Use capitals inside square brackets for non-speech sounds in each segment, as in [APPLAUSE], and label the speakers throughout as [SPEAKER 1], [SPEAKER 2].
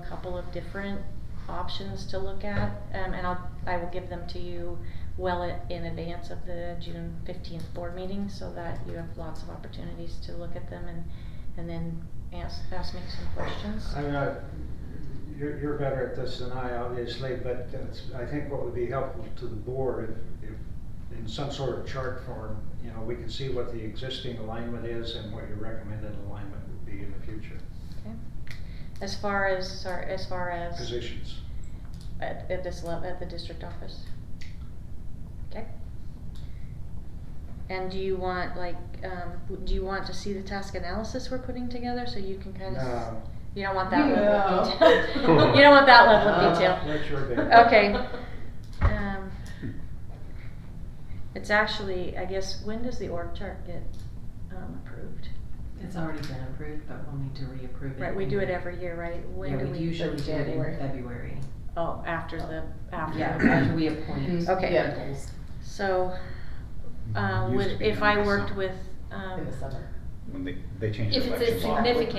[SPEAKER 1] a couple of different options to look at, um, and I'll, I will give them to you well i- in advance of the June fifteenth board meeting, so that you have lots of opportunities to look at them and, and then ask, ask me some questions.
[SPEAKER 2] I'm not, you're, you're better at this than I, obviously, but it's, I think what would be helpful to the board, if, if in some sort of chart form, you know, we can see what the existing alignment is and what your recommended alignment would be in the future,
[SPEAKER 1] Okay. As far as, sorry, as far as.
[SPEAKER 2] positions.
[SPEAKER 1] At, at this level, at the district office? Okay. And do you want, like, um, w- do you want to see the task analysis we're putting together, so you can kind of?
[SPEAKER 2] No,
[SPEAKER 1] You don't want that level
[SPEAKER 3] No.
[SPEAKER 1] of
[SPEAKER 2] [LAUGHS]
[SPEAKER 1] detail? [LAUGHS] You don't want that level
[SPEAKER 2] Uh,
[SPEAKER 1] of
[SPEAKER 4] [LAUGHS]
[SPEAKER 1] detail?
[SPEAKER 2] that's your big.
[SPEAKER 1] Okay. Um, It's actually, I guess, when does the org chart get, um, approved?
[SPEAKER 3] It's already been approved, but we'll need to reapprove it.
[SPEAKER 1] Right, we
[SPEAKER 3] in-
[SPEAKER 1] do it every year, right? When
[SPEAKER 3] Yeah,
[SPEAKER 1] do
[SPEAKER 3] we usually do it in
[SPEAKER 4] January.
[SPEAKER 3] February.
[SPEAKER 1] Oh, after the, after.
[SPEAKER 3] Yeah,
[SPEAKER 1] the-
[SPEAKER 3] after we appoint.
[SPEAKER 1] Okay.
[SPEAKER 4] Yeah,
[SPEAKER 1] So, uh,
[SPEAKER 5] Used to
[SPEAKER 1] would,
[SPEAKER 5] be
[SPEAKER 1] if
[SPEAKER 5] done in
[SPEAKER 1] I
[SPEAKER 5] the
[SPEAKER 1] worked
[SPEAKER 5] summer.
[SPEAKER 1] with, um.
[SPEAKER 4] in the summer.
[SPEAKER 5] When they, they change
[SPEAKER 6] If
[SPEAKER 5] the
[SPEAKER 6] it's
[SPEAKER 5] election
[SPEAKER 6] a
[SPEAKER 5] law.
[SPEAKER 4] Yeah,
[SPEAKER 6] significant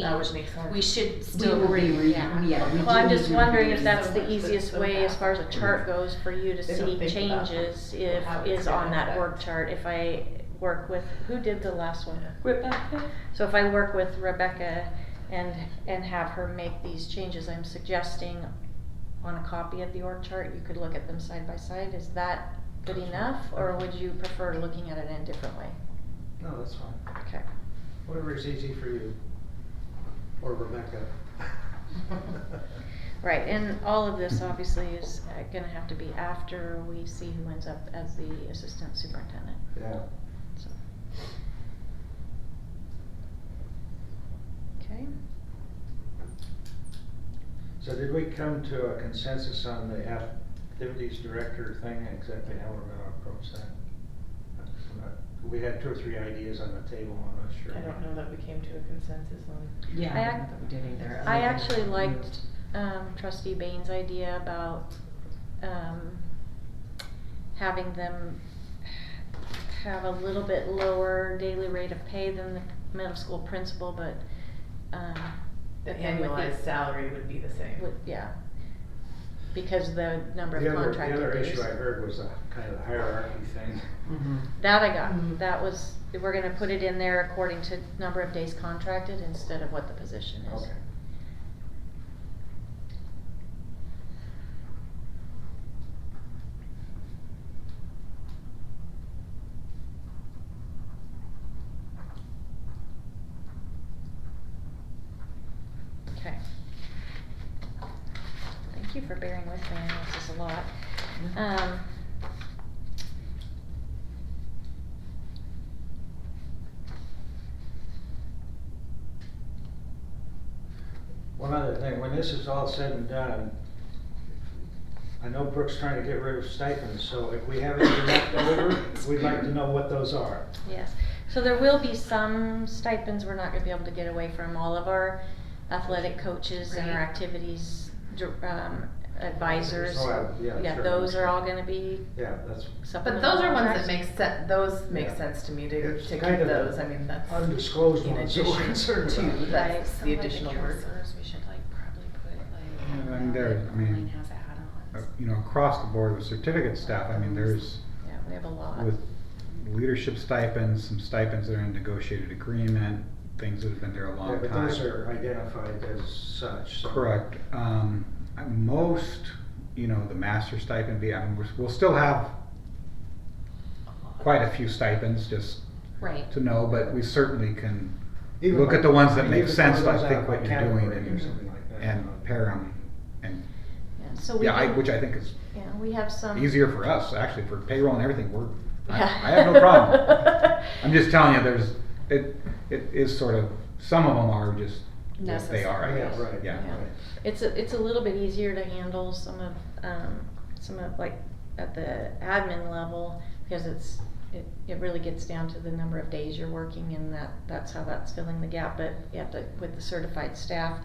[SPEAKER 4] that would
[SPEAKER 6] change,
[SPEAKER 4] make sense.
[SPEAKER 6] we should
[SPEAKER 3] We
[SPEAKER 6] still.
[SPEAKER 3] will re,
[SPEAKER 6] yeah.
[SPEAKER 3] yeah, we do.
[SPEAKER 1] Well, I'm just
[SPEAKER 3] need to
[SPEAKER 1] wondering if
[SPEAKER 3] reapprove
[SPEAKER 1] that's
[SPEAKER 3] it.
[SPEAKER 1] the easiest way as far as a chart goes for you to
[SPEAKER 4] They don't
[SPEAKER 1] see
[SPEAKER 4] think about
[SPEAKER 1] changes if,
[SPEAKER 4] how it's
[SPEAKER 1] is on
[SPEAKER 4] gonna
[SPEAKER 1] that
[SPEAKER 4] affect.
[SPEAKER 1] org chart, if I work with, who did the last one? Rebecca. So if I work with Rebecca and, and have her make these changes, I'm suggesting on a copy of the org chart, you could look at them side by side, is that good enough? Or would you prefer looking at it in a different way?
[SPEAKER 2] No, that's fine,
[SPEAKER 1] Okay.
[SPEAKER 2] whatever is easy for you, or Rebecca.
[SPEAKER 1] Right, and all of this obviously is uh, gonna have to be after we see who ends up as the assistant superintendent,
[SPEAKER 2] Yeah.
[SPEAKER 1] so. Okay,
[SPEAKER 2] So did we come to a consensus on the activities director thing, exactly how we're gonna approach that? I'm not- We had two or three ideas on the table, I'm not sure.
[SPEAKER 4] I don't know that we came to a consensus on.
[SPEAKER 3] Yeah,
[SPEAKER 1] I
[SPEAKER 3] I
[SPEAKER 1] ac-
[SPEAKER 3] don't know that we did either.
[SPEAKER 1] I
[SPEAKER 3] other than
[SPEAKER 1] actually
[SPEAKER 3] we
[SPEAKER 1] liked-
[SPEAKER 3] moved.
[SPEAKER 1] um, trustee Bain's idea about, um, having them have a little bit lower daily rate of pay than the middle school principal, but, um,
[SPEAKER 4] The
[SPEAKER 1] And with the-
[SPEAKER 4] annualized salary would be the same.
[SPEAKER 1] would, yeah. Because the number
[SPEAKER 2] The
[SPEAKER 1] of
[SPEAKER 2] other,
[SPEAKER 1] contracted
[SPEAKER 2] the other
[SPEAKER 1] days.
[SPEAKER 2] issue I heard was a kind of the hierarchy thing.
[SPEAKER 3] Mhm.
[SPEAKER 1] That I got,
[SPEAKER 2] Mm-hmm.
[SPEAKER 4] Mm.
[SPEAKER 1] that was, we're gonna put it in there according to number of days contracted instead of what the position is.
[SPEAKER 2] [LAUGHS] Okay.
[SPEAKER 1] Okay. Thank you for bearing with me, I know this is a lot.
[SPEAKER 2] Mm-hmm.
[SPEAKER 3] No.
[SPEAKER 1] Um.
[SPEAKER 2] One other thing, when this is all said and done, I know Brooke's trying to get rid of stipends, so if we have anything left over, we'd like to know what those are.
[SPEAKER 1] Yes, so there will be some stipends we're not gonna be able to get away from. All of our athletic coaches and our
[SPEAKER 4] Right.
[SPEAKER 1] activities dir- um, advisors.
[SPEAKER 2] Oh, uh, yeah, sure.
[SPEAKER 1] those are all gonna be
[SPEAKER 2] Yeah, that's
[SPEAKER 4] But
[SPEAKER 1] supplemental
[SPEAKER 4] those are ones that
[SPEAKER 1] contracts.
[SPEAKER 4] make sense, those make
[SPEAKER 2] Yeah.
[SPEAKER 4] sense to me to,
[SPEAKER 2] It's
[SPEAKER 4] to keep
[SPEAKER 2] kind of
[SPEAKER 4] those, I mean, that's.
[SPEAKER 2] undisclosed
[SPEAKER 4] in
[SPEAKER 2] ones that we're
[SPEAKER 4] addition
[SPEAKER 2] concerned
[SPEAKER 4] to
[SPEAKER 2] about.
[SPEAKER 1] Right.
[SPEAKER 4] That's the
[SPEAKER 6] Some of
[SPEAKER 4] additional work.
[SPEAKER 6] counselors, we should like probably put like.
[SPEAKER 5] Yeah, I mean, there- I mean,
[SPEAKER 6] Online has add-ons.
[SPEAKER 5] Uh, You know, across the board with certificate staff, I mean, there's
[SPEAKER 1] Yeah, we have a lot.
[SPEAKER 5] with leadership stipends, some stipends that are in negotiated agreement, things that have been there a
[SPEAKER 2] Yeah,
[SPEAKER 5] long
[SPEAKER 2] but
[SPEAKER 5] time.
[SPEAKER 2] those are identified as such. so-
[SPEAKER 5] Correct. Um, I- most, you know, the master stipend, be- I mean, we're- we'll still have quite a few stipends just
[SPEAKER 6] Right.
[SPEAKER 5] to know, but we certainly can
[SPEAKER 2] Even
[SPEAKER 5] look at the ones that
[SPEAKER 2] like-
[SPEAKER 5] make
[SPEAKER 2] even
[SPEAKER 5] sense,
[SPEAKER 2] those
[SPEAKER 5] like
[SPEAKER 2] out
[SPEAKER 5] think
[SPEAKER 2] by
[SPEAKER 5] what you're
[SPEAKER 2] category
[SPEAKER 5] doing
[SPEAKER 2] Or something
[SPEAKER 5] and,
[SPEAKER 2] like that.
[SPEAKER 5] and pair them. And,
[SPEAKER 1] Yeah, so we
[SPEAKER 5] yeah, I,
[SPEAKER 1] can-
[SPEAKER 5] which I think is
[SPEAKER 1] Yeah, we have some.
[SPEAKER 5] easier for us, actually, for payroll and everything, we're, I,
[SPEAKER 1] Yeah.
[SPEAKER 5] I have no problem.
[SPEAKER 1] [LAUGHS]
[SPEAKER 5] I'm just telling you, there's, it, it is sort of, some of them are just what they are, I
[SPEAKER 2] Yeah,
[SPEAKER 5] guess,
[SPEAKER 2] right,
[SPEAKER 5] yeah.
[SPEAKER 2] right.
[SPEAKER 1] It's a, it's a little bit easier to handle some of, um, some of like at the admin level because it's, it, it really gets down to the number of days you're working and that, that's how that's filling the gap. But yeah, the, with the certified staff,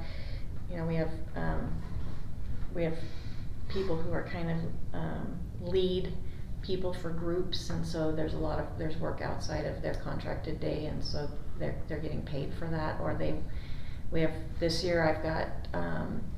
[SPEAKER 1] you know, we have, um, we have people who are kind of, um, lead people for groups and so there's a lot of, there's work outside of their contracted day and so they're, they're getting paid for that or they, we have, this year I've got, um,